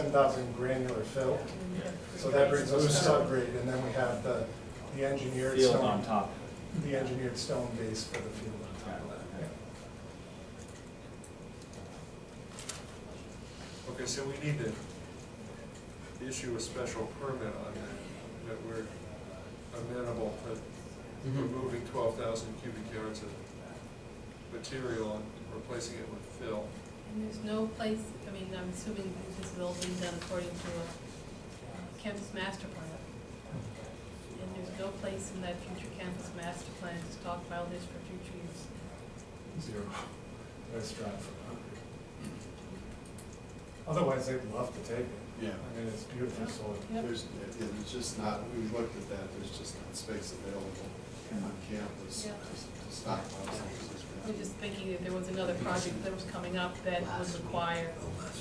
7,000 granular fill. So that brings us to subgrade, and then we have the, the engineered Field stone, on top of the engineered stone base for the field on top of that. yeah. Okay, so we need to issue a special permit on that, that we're amenable to Mhm. removing twelve thousand cubic yards of material and replacing it with fill. And there's no place, I mean, I'm assuming this is all being done according to a campus master plan. And there's no place in that future campus master plan to stockpile this for future use. Zero. Let's drive for concrete. Otherwise, they'd love to take it. Yeah. I mean, it's beautiful soil. Yep. There's, yeah, there's just not, we looked at that, there's just not space available on campus Yeah. to stockpile some of this. I was just thinking that there was another project that was coming up that would require We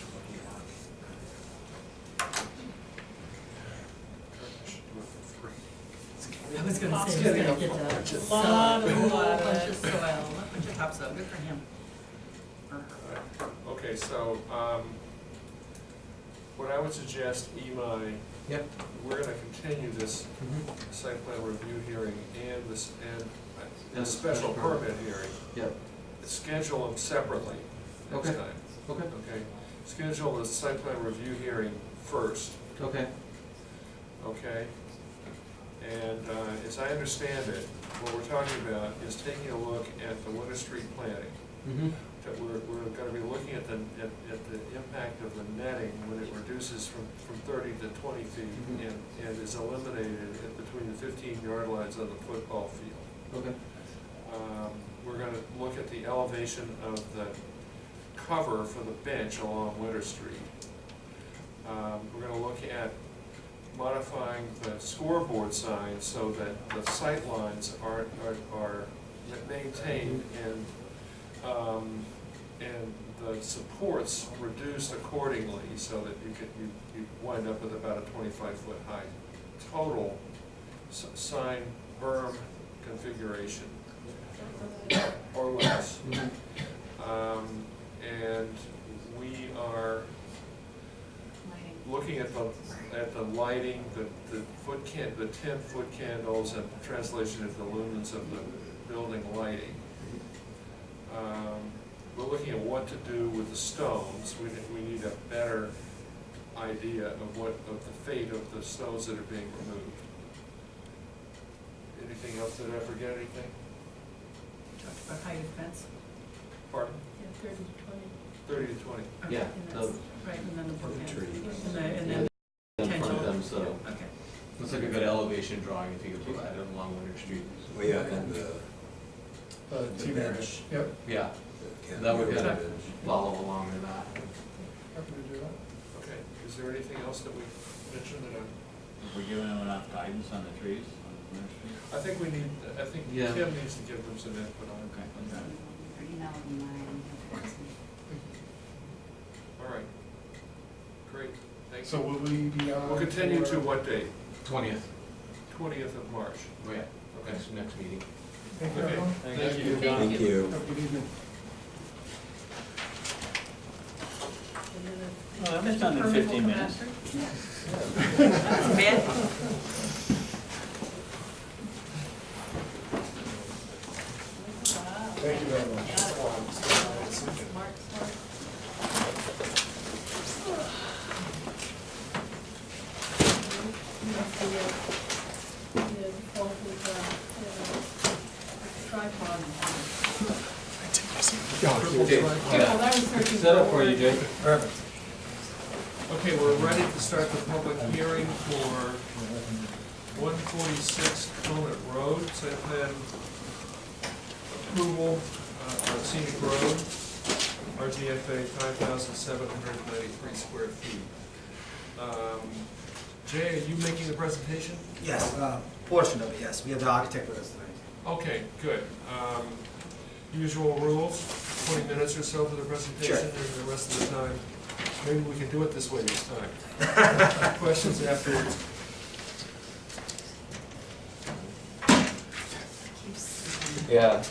should do it for free. I was gonna Pop's say, getting he's a gonna get a bunch of lot soil. of, whole bunch of Bunch of soil, a bunch of topsoil, good for him. Or her. Okay, so, um, what I would suggest, Imai, Yep. we're gonna continue this Mhm. site plan review hearing and this, and, uh, And and special special permit. permit hearing. Yep, schedule them separately next Okay. time, okay, okay? Schedule the site plan review hearing first, okay. okay? And uh, as I understand it, what we're talking about is taking a look at the Winter Street planning. Mm-hmm. That we're, we're gonna be looking at the, at, at the impact of the netting when it reduces from, from thirty to twenty feet Mhm. and, and is eliminated at between the fifteen yard lines on the football field. Okay, Um, We're gonna look at the elevation of the cover for the bench along Winter Street. Um, We're gonna look at modifying the scoreboard signs so that the sight lines are, are, are maintained and, um, and the supports reduced accordingly so that you could, you, you wind up with about a twenty-five foot high total s- sign berm configuration or less. Mhm. Um, and we are looking at the, at the lighting, the, the foot can, the ten foot candles and translation of the lumens of the building lighting. Um, we're looking at what to do with the stones, we, think we need a better idea of what, of the fate of the stones that are being removed. Anything else, did I forget anything? Talked about height of fence. Pardon? yeah, thirty to twenty. Thirty to twenty. Yeah, And the- that's- Right, and then the bookend. Tree. And the, and then Yeah, in front potential. of them, so. Yeah, Okay. Looks like a good elevation drawing if you could provide it along Winter Street. Way up in Oh, the, The The T bench. Yep. Yeah, the- that would kind Yeah. of follow along with that. Happy to do that. Okay, is there anything else that we mentioned that I, We're giving them enough guidance on the trees on Winter Street? I think we need, I think Yeah. Tim needs to give them some input on. Okay, okay. All right. Great, thank So you. will we be on? We'll continue to for- what date? Twentieth, Oh, Twentieth of March. yeah, next, next meeting. Thank you, Okay. everyone. Thank you, John. Thank you. Have a good evening. And then the- Well, that was done in Permit will 15 come minutes. after. Bad Thank you very much. Mark, sorry. The, uh, the fault with, uh, the tripod. Well, that was searching Set up for you, Jake. Okay, we're ready to start the public hearing for one forty-six Conant Road, site plan approval uh, of scenic road, RGFA five thousand seven hundred ninety-three square feet. Um, Jay, are you making the presentation? Yes, uh, portion of it, yes. We have the architect with us tonight. Okay, good. Um, Usual rules, twenty minutes or so for the presentation, Sure. and the rest of the time, maybe we can do it this way this time. Questions afterwards? Yeah.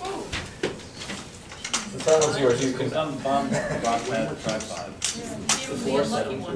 The that was yours, you can. Some bum got that tripod. Yeah, you were lucky one.